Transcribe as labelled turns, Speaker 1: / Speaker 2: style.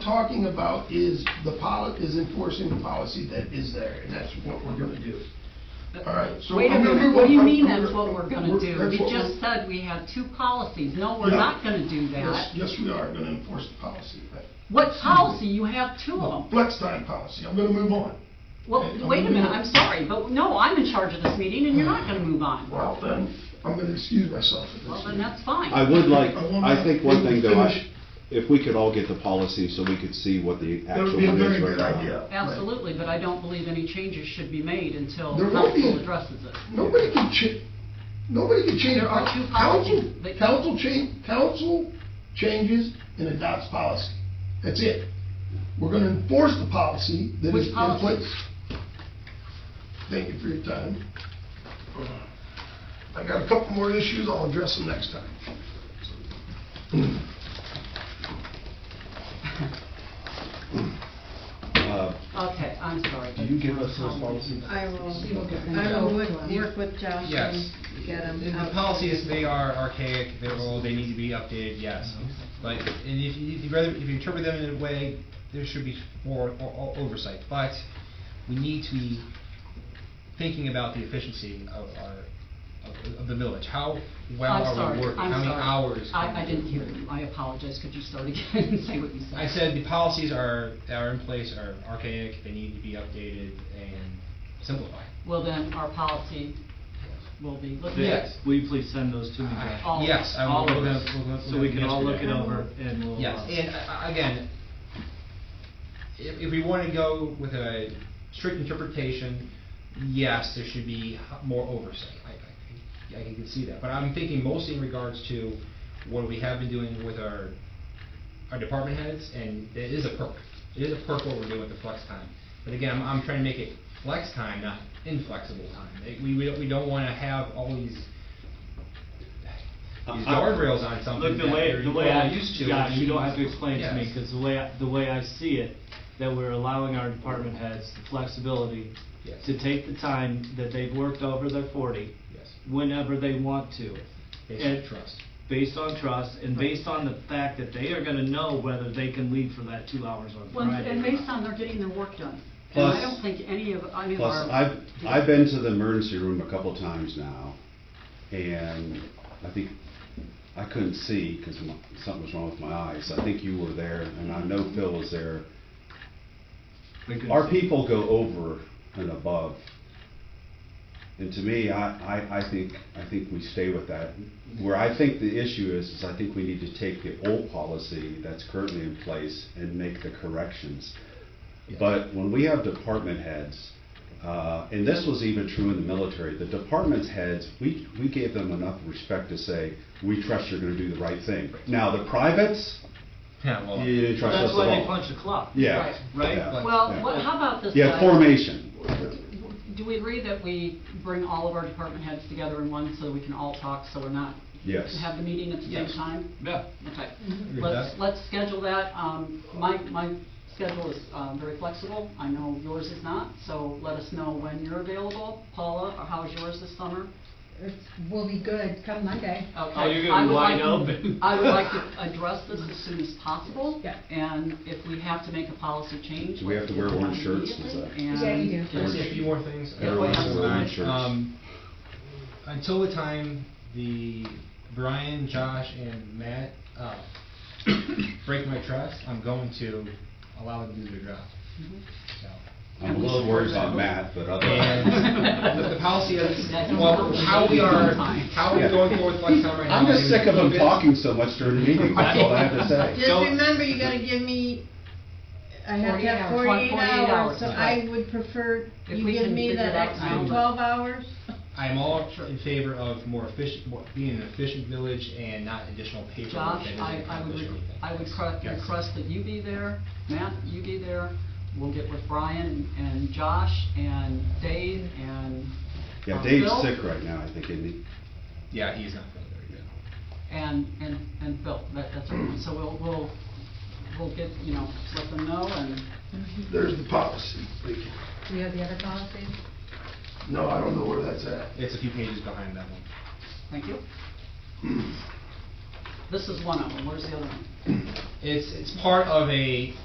Speaker 1: talking about is the poli, is enforcing the policy that is there, and that's what we're gonna do. All right, so.
Speaker 2: Wait a
Speaker 1: I'm gonna
Speaker 2: minute, what do you
Speaker 1: I'm
Speaker 2: mean
Speaker 1: gonna-
Speaker 2: that's what we're gonna do?
Speaker 1: that's
Speaker 2: We
Speaker 1: what
Speaker 2: just
Speaker 1: we're-
Speaker 2: said we had two policies. No, we're
Speaker 1: Yeah.
Speaker 2: not gonna do that.
Speaker 1: Yes, yes, we are gonna enforce the policy.
Speaker 2: What policy? You have two of them.
Speaker 1: Flex time policy, I'm gonna move on.
Speaker 2: Well,
Speaker 1: Okay,
Speaker 2: wait a
Speaker 1: I'm
Speaker 2: minute,
Speaker 1: gonna-
Speaker 2: I'm sorry, but no, I'm in charge of this meeting and you're not gonna move on.
Speaker 1: Well, then, I'm gonna excuse myself at this.
Speaker 2: Well, then
Speaker 1: meeting.
Speaker 2: that's fine.
Speaker 3: I would like,
Speaker 1: I want
Speaker 3: I think one
Speaker 1: to
Speaker 3: thing though, I
Speaker 1: finish.
Speaker 3: sh- if we could all get the policy so we could see what the
Speaker 1: That would
Speaker 3: actual
Speaker 1: be a
Speaker 3: one
Speaker 1: very
Speaker 3: is right
Speaker 1: good
Speaker 3: now.
Speaker 1: idea.
Speaker 2: Absolutely, but I don't believe any changes should be made until
Speaker 1: There won't be.
Speaker 2: council addresses it.
Speaker 1: Nobody can cha, nobody can change.
Speaker 2: There are two
Speaker 1: Council,
Speaker 2: policies. They-
Speaker 1: council change, council changes and adopts policy. That's it. We're gonna enforce the policy that is
Speaker 2: Which
Speaker 1: in
Speaker 2: policy?
Speaker 1: place. Thank you for your time. I got a couple more issues, I'll address them next time.
Speaker 3: Uh,
Speaker 2: Okay, I'm sorry.
Speaker 4: Can you give us those policies?
Speaker 5: I will, I
Speaker 2: them.
Speaker 5: will work- work with Josh and
Speaker 6: Yes.
Speaker 5: get them.
Speaker 6: The the
Speaker 5: out.
Speaker 6: policies, they are archaic, they're old, they need to be updated, yes. But, and if you, if you rather, if you interpret them in a way, there should be more o- o- oversight. But we need to be thinking about the efficiency of our, of- of the village. How well
Speaker 2: I'm
Speaker 6: are
Speaker 2: sorry,
Speaker 6: we working?
Speaker 2: I'm
Speaker 6: How many
Speaker 2: sorry.
Speaker 6: hours? can
Speaker 2: I, I
Speaker 6: we-
Speaker 2: didn't hear you. I apologize. Could you start again and say what you said?
Speaker 6: I said the policies are, that are in place are archaic, they need to be updated and simplified.
Speaker 2: Well, then our policy will be looked at.
Speaker 6: Yes.
Speaker 7: Will you please send those to me? Josh?
Speaker 2: All of
Speaker 6: Yes, I will,
Speaker 7: All
Speaker 6: we're
Speaker 7: of
Speaker 6: gonna,
Speaker 7: us,
Speaker 6: we're gonna.
Speaker 7: so we can all look it
Speaker 6: yesterday.
Speaker 7: over and we'll.
Speaker 6: Yes,
Speaker 7: uh,
Speaker 6: and uh, again, if, if we want to go with a strict interpretation, yes, there should be more oversight. I, I, I can see that, but I'm thinking mostly in regards to what we have been doing with our, our department heads, and it is a perk. It is a perk what we're doing with the flex time. But again, I'm, I'm trying to make it flex time, not inflexible time. Like, We, we don't, we don't want to have all these, these
Speaker 7: I-
Speaker 6: guardrails on something
Speaker 7: uh, Look, the
Speaker 6: that
Speaker 7: way,
Speaker 6: we're-
Speaker 7: the
Speaker 6: we're
Speaker 7: way
Speaker 6: all
Speaker 7: I,
Speaker 6: used to.
Speaker 7: Josh, you don't have to explain to me,
Speaker 6: Yes.
Speaker 7: because the way, I- the way I see it, that we're allowing our department heads the flexibility
Speaker 6: Yes.
Speaker 7: to take the time that they've worked over their forty,
Speaker 6: Yes.
Speaker 7: whenever they want to.
Speaker 6: Based
Speaker 7: And-
Speaker 6: on trust.
Speaker 7: Based on trust, and based on the fact that they are gonna know whether they can leave for that two hours on
Speaker 2: Well,
Speaker 7: Friday.
Speaker 2: and
Speaker 7: or
Speaker 2: based
Speaker 7: not.
Speaker 2: on their getting their work done. And I
Speaker 3: Plus-
Speaker 2: don't think any of, I mean,
Speaker 3: Plus,
Speaker 2: our.
Speaker 3: I've, I've been to the emergency room a couple times now, and I think, I couldn't see because something was wrong with my eyes. I think you were there, and I know Phil was there.
Speaker 7: We could-
Speaker 3: Our people go over and above. And to me, I, I, I think, I think we stay with that. Where I think the issue is, is I think we need to take the old policy that's currently in place and make the corrections. But when we have department heads, uh, and this was even true in the military, the department heads, we, we gave them enough respect to say, we trust you're gonna do the right thing. Now, the privates,
Speaker 6: Yeah, well.
Speaker 3: you trust us
Speaker 7: That's
Speaker 3: at
Speaker 7: why they
Speaker 3: all.
Speaker 7: punch the clock.
Speaker 3: Yeah.
Speaker 2: Right.
Speaker 7: Right?
Speaker 3: yeah.
Speaker 2: Well,
Speaker 3: Yeah.
Speaker 2: what, how about this?
Speaker 3: Yeah,
Speaker 2: guys?
Speaker 3: formation.
Speaker 2: Do we agree that we bring all of our department heads together in one so we can all talk, so we're not?
Speaker 3: Yes.
Speaker 2: Have the meeting at the same
Speaker 6: Yes.
Speaker 2: time?
Speaker 6: Yeah.
Speaker 2: Okay.
Speaker 6: Agree with
Speaker 2: Let's,
Speaker 6: that.
Speaker 2: let's schedule that. Um, my, my schedule is, um, very flexible. I know yours is not, so let us know when you're available. Paula, how's yours this summer?
Speaker 8: It's- We'll be good come Monday.
Speaker 2: Okay.
Speaker 7: Oh, you're
Speaker 2: I
Speaker 7: gonna be
Speaker 2: would
Speaker 7: wide
Speaker 2: like-
Speaker 7: open.
Speaker 2: I would like to address this as soon as possible.
Speaker 8: Yeah.
Speaker 2: And if we have to make a policy change.
Speaker 3: Do we have to wear
Speaker 2: let's
Speaker 3: orange
Speaker 2: do it
Speaker 3: shirts? Is
Speaker 2: immediately
Speaker 3: that-
Speaker 8: Yeah, you do.
Speaker 2: and
Speaker 6: Can I
Speaker 2: just-
Speaker 6: say a few more things?
Speaker 2: Yeah, Everyone's
Speaker 6: Yeah.
Speaker 2: wearing
Speaker 3: orange shirts.
Speaker 6: Um, Until the time the Brian, Josh, and Matt, uh, break my trust, I'm going to allow them to do their job,
Speaker 2: Mhm.
Speaker 6: so.
Speaker 3: I'm a little worried about Matt, but other.
Speaker 6: And the the policy is,
Speaker 2: That's
Speaker 6: well, how we are, how we're
Speaker 3: Yeah.
Speaker 6: going forward with flex time right now.
Speaker 3: I'm just
Speaker 6: maybe
Speaker 3: sick of him
Speaker 6: keep it.
Speaker 3: talking so much during the meeting, that's all I have to say.
Speaker 5: Just
Speaker 7: Don't-
Speaker 5: remember, you gotta give me, I have to
Speaker 8: 48
Speaker 5: have
Speaker 8: hours.
Speaker 5: forty-eight
Speaker 2: 48
Speaker 5: hours,
Speaker 2: hours,
Speaker 5: so
Speaker 6: right.
Speaker 5: I would prefer
Speaker 2: If
Speaker 5: you
Speaker 2: we
Speaker 5: give
Speaker 2: can
Speaker 5: me
Speaker 2: figure
Speaker 5: that
Speaker 2: it out
Speaker 5: extra
Speaker 2: now.
Speaker 5: twelve hours.
Speaker 6: I am all in favor of more efficient, more- being an efficient village and not additional paperwork
Speaker 2: Josh, I,
Speaker 6: that doesn't
Speaker 2: I would,
Speaker 6: accomplish
Speaker 2: re-
Speaker 6: anything.
Speaker 2: I would cru-
Speaker 6: Yes.
Speaker 2: request that you be there, Matt, you be there. We'll get with Brian and Josh and Dave and.
Speaker 3: Yeah,
Speaker 2: um,
Speaker 3: Dave's
Speaker 2: Phil.
Speaker 3: sick right now, I think, isn't he?
Speaker 6: Yeah, he's not feeling very good.
Speaker 2: And, and, and Phil, that, that's everyone. So we'll, we'll, we'll get, you know, let them know and
Speaker 1: There's the policy.
Speaker 8: Do you have the other policies?
Speaker 1: No, I don't know where that's at.
Speaker 6: It's a few pages behind that one.
Speaker 2: Thank you. This is one of them, where's the other one?
Speaker 6: It's, it's part of a